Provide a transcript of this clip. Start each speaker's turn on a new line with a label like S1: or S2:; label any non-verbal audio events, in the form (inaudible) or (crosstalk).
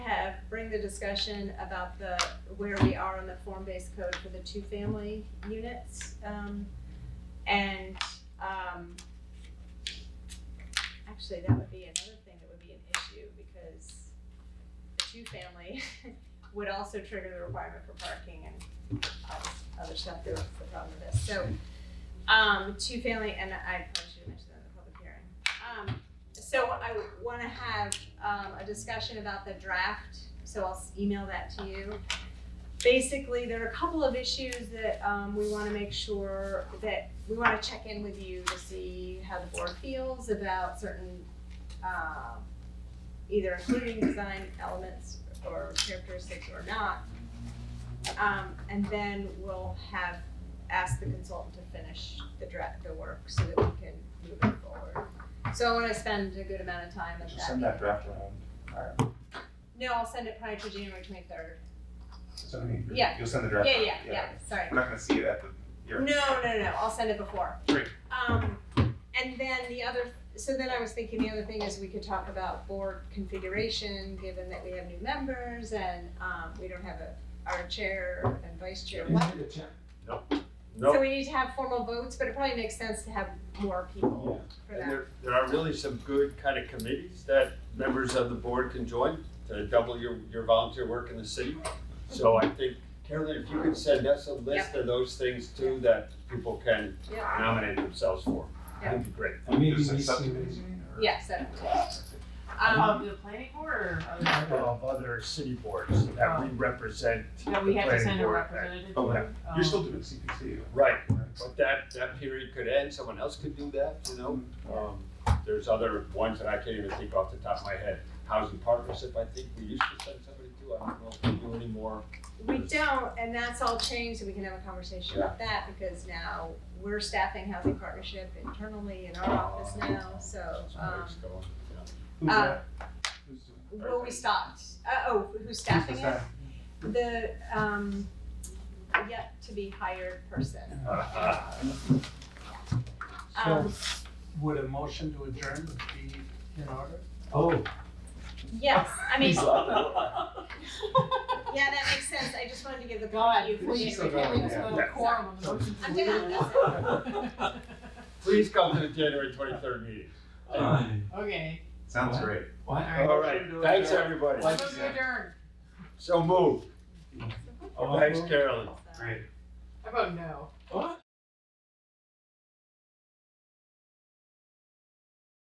S1: the discussion about the, where we are on the form-based code for the two-family units. Um, and, um, actually, that would be another thing that would be an issue because the two-family (laughs) would also trigger the requirement for parking and uh, other stuff that was the problem with this. So, um, two-family, and I probably should have mentioned that in the public hearing. Um, so I wanna have, um, a discussion about the draft, so I'll s- email that to you. Basically, there are a couple of issues that, um, we wanna make sure that, we wanna check in with you to see how the board feels about certain, um, either including design elements or characteristics or not. Um, and then we'll have, ask the consultant to finish the draft, the work, so that we can move it forward. So I wanna spend a good amount of time at
S2: Just send that draft around. Alright.
S1: no, I'll send it prior to January twenty-third.
S2: So I mean, you're-
S1: Yeah.
S2: You'll send the
S1: Yeah,
S2: draft.
S1: yeah, yeah, sorry.
S2: We're not gonna see it at the,
S1: No,
S2: here.
S1: no, no, I'll send it before.
S2: Great.
S1: Um, and then the other, so then I was thinking the other thing is we could talk about board configuration, given that we have new members and, um, we don't have a, our chair and vice chair. What- So we need to have formal votes, but it probably makes sense to have more people for
S3: And
S1: that.
S3: there, there are really some good kind of committees that members of the board can join to double your, your volunteer work in the city. So I think, Carolyn, if you could send us a list of those things too that people can
S1: Yeah,
S3: nominate themselves for,
S1: Yeah.
S3: that'd be great.
S2: And
S4: Maybe
S2: just
S4: we
S2: send
S4: should-
S2: subcommittees, you mean, or-
S1: yeah, so,
S5: Of
S1: um,
S5: the planning board or other,
S3: Of other city boards that we represent.
S5: Um, that we have
S3: the
S5: to
S3: planning
S5: send a
S3: board.
S5: representative to?
S2: Oh,
S5: Um,
S2: You're still doing CPC. right?
S3: Right,
S1: Uh,
S3: but that, that period could end, someone else could do that, you know? Um, There's other ones that I can't even think off the top of my head. Housing partnership, I think we used to send somebody to, I don't know if we do anymore.
S1: we don't, and that's all changed, so we can have a conversation about that, because now we're staffing housing partnership internally in our office now, so, um,
S3: Somebody's going, yeah.
S2: Who's
S1: Uh,
S2: that? Who's doing that?
S1: well, we stopped. Uh, oh, who's staffing
S2: Who's
S1: it?
S2: that?
S1: The, um, yet to be hired
S2: (laughs)
S1: person. Um,
S4: So would a motion to adjourn be in order?
S2: Oh.
S1: yes, I mean,
S2: He's laughing.
S1: yeah, that makes sense, I just wanted to give the. God,
S5: Please, we can't
S2: oh,
S5: leave this without a quorum on the motion.
S1: I'm down, that's
S3: Please come to the January twenty-third meeting.
S5: (laughs) Okay,
S2: Sounds
S4: What?
S2: great.
S4: What?
S5: All
S3: All right, thanks, everybody.
S4: Like-
S5: motion adjourned.
S3: So moved. Thanks, Carolyn.
S1: it.
S2: Great.
S5: I vote no.
S4: What?